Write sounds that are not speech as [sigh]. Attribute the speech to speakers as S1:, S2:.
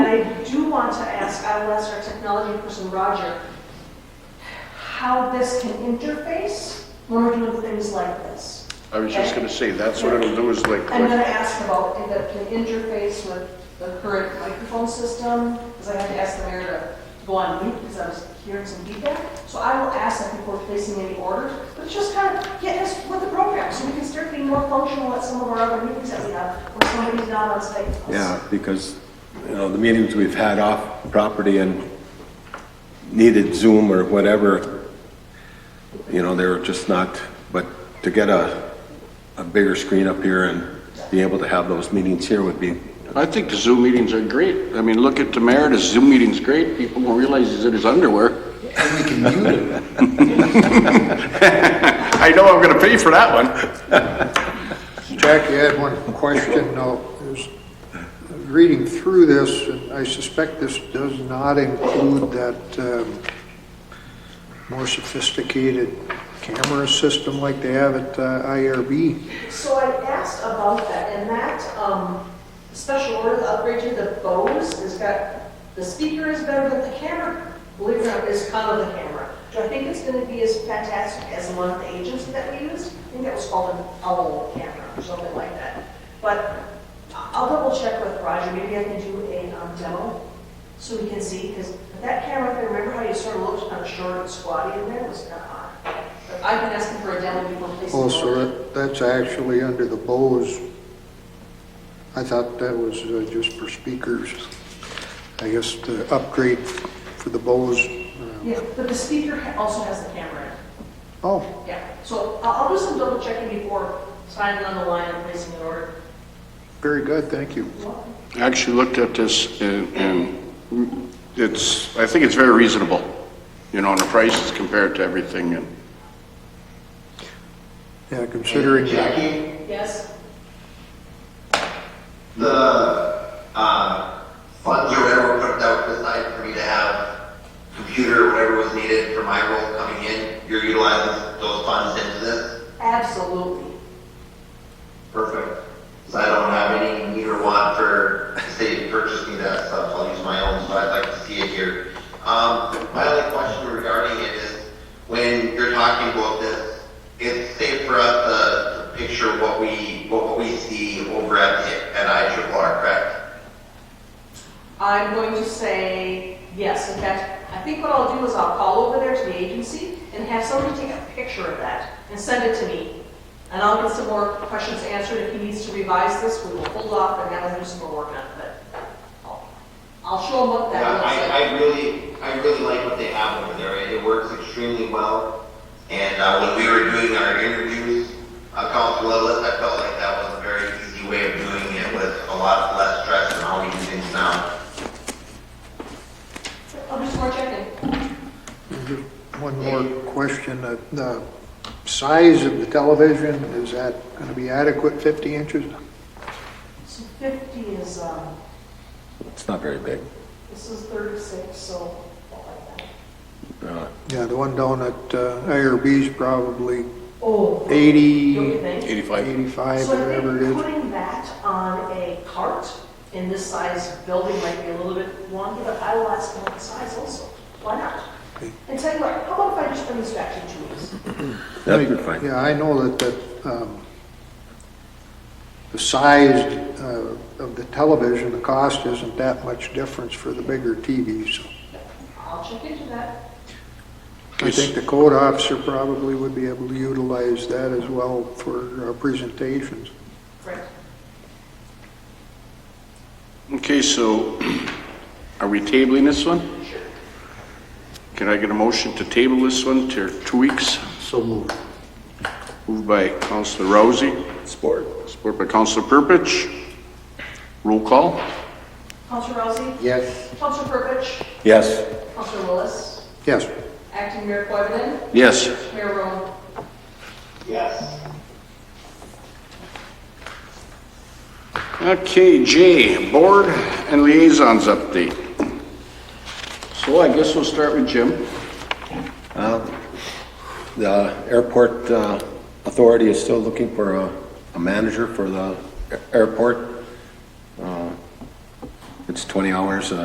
S1: I do want to ask, I will ask our technology person, Roger, how this can interface when we're doing things like this.
S2: I was just gonna say, that's what it'll do is like,
S1: I'm
S2: like-
S1: gonna ask about if it can interface with the current microphone system, because I had to ask the mayor to go on mute because I was hearing some feedback. So I will ask that before placing any orders, but just kind of get us with the program so we can start being more functional at some of our other meetings that we have, where somebody's not on site. with us.
S3: Yeah, because, you know, the meetings we've had off property and needed Zoom or whatever, you know, they were just not, but to get a, a bigger screen up here and be able to have those meetings here would be,
S2: I think the Zoom meetings are great. I mean, look at Tamara's Zoom meeting's great. People will realize he's in his underwear.
S4: And we can mute him.
S2: I know I'm gonna pay for that one.
S5: Jack, you had one question, no, is, reading through this, and I suspect this does not include that um, more sophisticated camera system like they have at uh, IRB.
S1: So I asked about that, and that, um, special order, the upgrade to the Bose, has got, the speaker is better than the camera, believe it or not, is kind of the camera. Do I think it's gonna be as fantastic as the one of the agents that we used? I think that was called an owl camera, or something like that. But I'll double check with Roger, maybe I can do a um, demo, so we can see, because that camera, if you remember how you sort of looked kind of short and squatty in there, it was kind of odd. But I've been asking for a demo before placing.
S5: Oh,
S1: orders.
S5: so that, that's actually under the Bose. I thought that was uh, just for speakers. I guess the upgrade for the Bose. uh,
S1: Yeah, but the speaker ha- also has the camera in it.
S5: Oh,
S1: Yeah, so I'll, I'll do some double checking before signing on the line and placing an order.
S5: very good, thank you.
S2: I actually looked at this and, and it's, I think it's very reasonable, you know, on the prices compared to everything and
S5: Yeah, considering.
S4: Jackie,
S1: Yes?
S4: the, um, funds or whatever were put out aside for me to have computer, whatever was needed for my role coming in, you're utilizing those funds into this?
S1: Absolutely.
S4: Perfect. So I don't have any need or want for the city to purchase me that stuff, I'll use my own, so I'd like to see it here. Um, my only question regarding it is, when you're talking about this, it's safe for us uh, to to picture what we, what we see over at, at I triple R, correct?
S1: I'm going to say yes. In fact, I think what I'll do is I'll call over there to the agency and have somebody take a picture of that and send it to me. And I'll get some more questions answered. If he needs to revise this, we will hold off and have him do some more work on it, but I'll- I'll show him what that
S4: Yeah,
S1: looks like.
S4: I, I really, I really like what they have over there. It works extremely well. And, uh, when we were doing our interviews, uh, council level, I felt like that was a very easy way of doing it with a lot less stress than how we do things now.
S1: I'll do some more checking.
S5: Just One more question, Uh, the size of the television, is that going to be adequate, 50 inches?
S1: So 50 is, um,
S3: it's not very big.
S1: This is 36, so about like that.
S3: Uh,
S5: Yeah, the one down at uh, IRB is probably
S1: Oh. Don't you
S5: 80,
S1: think?
S2: 85.
S5: 85,
S1: So I
S5: whatever it
S1: think
S5: is.
S1: putting that on a cart in this size building might be a little bit wonky, but I will ask about the size also. Why not?
S5: Okay.
S1: And tell you what, how about if I just bring this back in two weeks?
S3: That'd be fine.
S5: Yeah, I know that, that, um, the size uh, of the television, the cost isn't that much difference for the bigger TVs.
S1: I'll check into that.
S5: I think the code officer probably would be able to utilize that as well for uh, presentations.
S1: Great.
S2: Okay, so [clears throat] are we tabling this one?
S1: Sure.
S2: Can I get a motion to table this one to two weeks?
S5: So moved.
S2: Moved by Counselor Rousey,
S3: Sport.
S2: support by Counselor Purpich. Roll call?
S1: Counselor Rousey?
S5: Yes.
S1: Counselor Purpich?
S3: Yes.
S1: Counselor Willis?
S5: Yes.
S1: Acting Mayor Coivinon?
S2: Yes.
S1: Mayor Rome?
S4: Yes.
S2: Okay, J, Board and Liaisons Update. So I guess we'll start with Jim.
S3: The airport uh, authority is still looking for a- a manager for the a- airport. Uh, It's 20 hours uh,